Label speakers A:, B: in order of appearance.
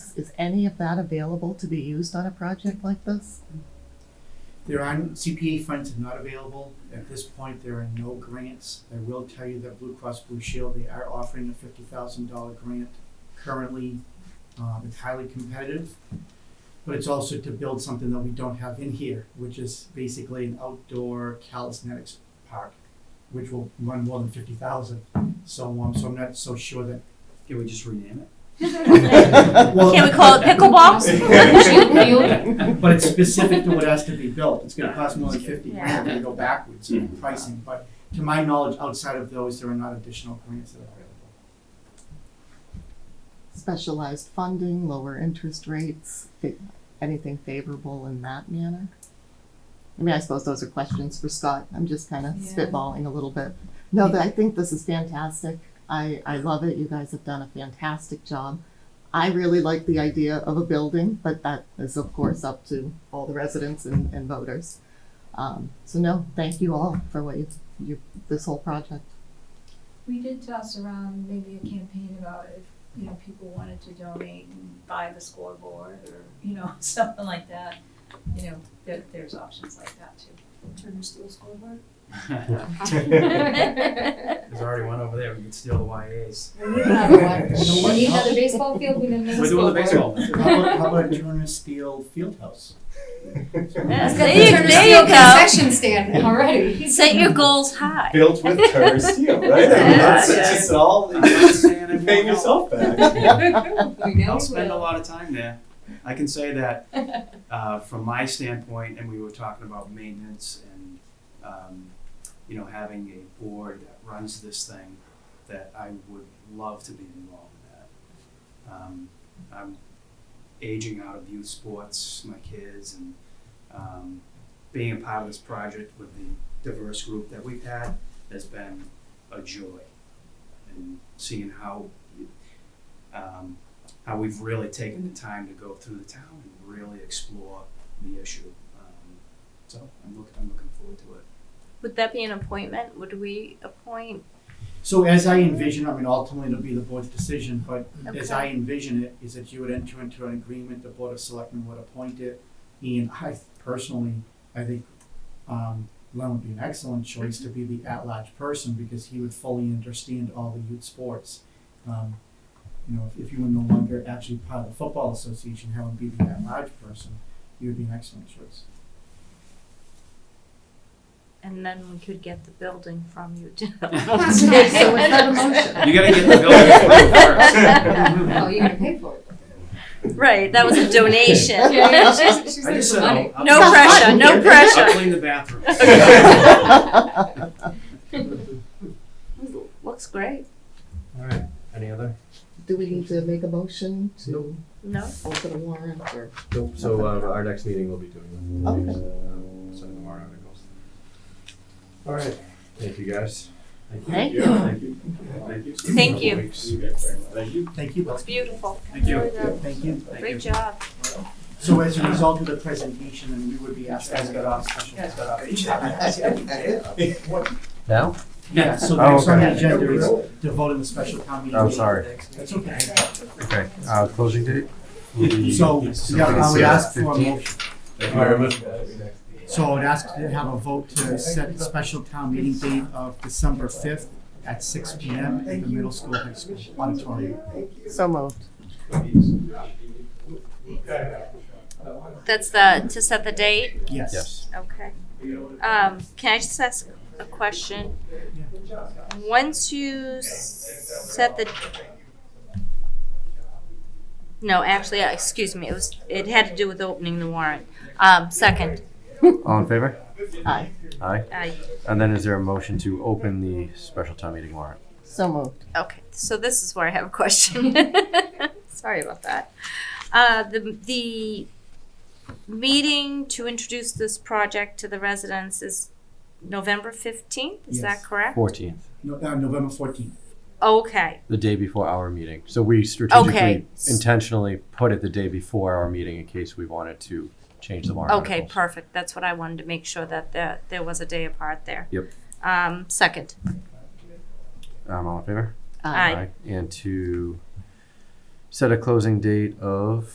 A: this? Is any of that available to be used on a project like this?
B: There are, CPA funds are not available. At this point, there are no grants. I will tell you that Blue Cross Blue Shield, they are offering a fifty thousand dollar grant currently. Um, it's highly competitive, but it's also to build something that we don't have in here, which is basically an outdoor calisthenics park, which will run more than fifty thousand. So, um, so I'm not so sure that.
C: Can we just rename it?
B: Well,
D: Can we call it pickleball?
B: But it's specific to what has to be built. It's gonna cost more than fifty grand if we go backwards in
C: Yeah.
B: pricing, but to my knowledge, outside of those, there are not additional grants that are available.
A: Specialized funding, lower interest rates, fa- anything favorable in that manner? I mean, I suppose those are questions for Scott. I'm just kind of
D: Yeah.
A: spitballing a little bit. No, but I think this is fantastic. I, I love it. You guys have done a fantastic job. I really like the idea of a building, but that is of course up to all the residents and, and voters. Um, so no, thank you all for what you, you, this whole project.
E: We did toss around maybe a campaign about if, you know, people wanted to donate and buy the scoreboard or, you know, something like that. You know, there, there's options like that too.
F: Turner School scoreboard.
C: There's already one over there, we could steal the YAs.
F: We need another one. We need another baseball field, we need
C: We're
F: another
C: doing the
F: scoreboard.
C: baseball.
B: How about, how about a Turner Steel Fieldhouse?
D: Yes,
F: Got the
D: There you-
F: Turner
D: there
F: Steel
D: you go.
F: Concession stand already.
D: Set your goals high.
G: built with Turner steel, right? I
D: Yeah,
G: mean, that's
D: yeah.
G: just all
C: I'm not saying
G: you're
C: everyone
G: paying
C: else.
G: yourself back.
F: We know
C: I'll
F: you
C: spend a
F: will.
C: lot of time there. I can say that uh, from my standpoint, and we were talking about maintenance and um, you know having a board that runs this thing, that I would love to be involved in that. Um, I'm aging out of youth sports, my kids, and um, being a part of this project with the diverse group that we've had has been a joy. And seeing how um, how we've really taken the time to go through the town and really explore the issue. Um, so I'm looking, I'm looking forward to it.
D: Would that be an appointment? Would we appoint?
B: So as I envision, I mean, ultimately it'll be the board's decision, but as I envision it, is that you would enter into an agreement, the board of selectmen would appoint it. And I personally, I think, um, Len would be an excellent choice to be the at-large person because he would fully understand all the youth sports. Um, you know, if, if you were no longer actually part of the football association, having be the at-large person, you would be an excellent choice.
D: And then we could get the building from you too.
A: So is that a motion?
C: You gotta get the building approved
F: Oh, you're gonna pay for it.
D: Right, that was a donation.
F: Yeah, she's, she's
C: first. I
F: like
C: just
F: the
C: said,
F: money.
C: I'll- I'll-
D: No pressure, no
C: I'll
D: pressure.
C: clean the bathrooms.
D: Looks great.
H: All right, any other?
A: Do we need to make a motion to
D: No?
A: open a warrant or?
H: Nope, so uh, our next meeting we will be doing that.
A: Okay.
H: Um, Sign the warrant articles. All right, thank you guys.
A: Thank
G: Yeah, Thank you. Thank you.
D: Thank you.
G: Thank you.
B: Thank you, Bill.
D: It's beautiful.
C: Thank you.
B: Thank you.
C: Thank you.
D: Great job.
B: So as a result of the presentation, then we would be asked.
C: Guys got off, special guys got off. Each time.
H: Now?
B: Yeah, so the
H: Oh,
B: next on the
H: okay.
B: agenda is to vote in the special town meeting.
H: I'm
B: date.
H: Oh, sorry.
B: That's okay.
H: Okay, uh, closing date?
B: So, yeah, I would ask for a motion,
G: Thank
H: you very much.
B: so I would ask to have a vote to set the special town meeting date of December fifth at six P M at the middle school high school auditorium.
A: So moved.
D: That's the, to set the date?
B: Yes.
H: Yes.
D: Okay. Um, can I just ask a question? Once you s- set the. No, actually, uh, excuse me, it was, it had to do with opening the warrant. Um, second,
H: All in favor?
A: Aye.
H: Aye.
D: I,
H: And then is there a motion to open the special town meeting warrant?
A: So moved.
D: okay, so this is where I have a question. Sorry about that. Uh, the, the meeting to introduce this project to the residents is November fifteenth, is that
B: Yes.
D: correct?
H: Fourteenth,
B: No, uh, November fourteenth.
D: Okay,
H: the day before our meeting. So we strategically
D: Okay.
H: intentionally put it the day before our meeting in case we wanted to change the warrant
D: Okay,
H: articles.
D: perfect. That's what I wanted to make sure that there, there was a day apart there.
H: Yep.
D: Um, second,
H: Um, all in favor?
D: Aye.
H: And to set a closing date of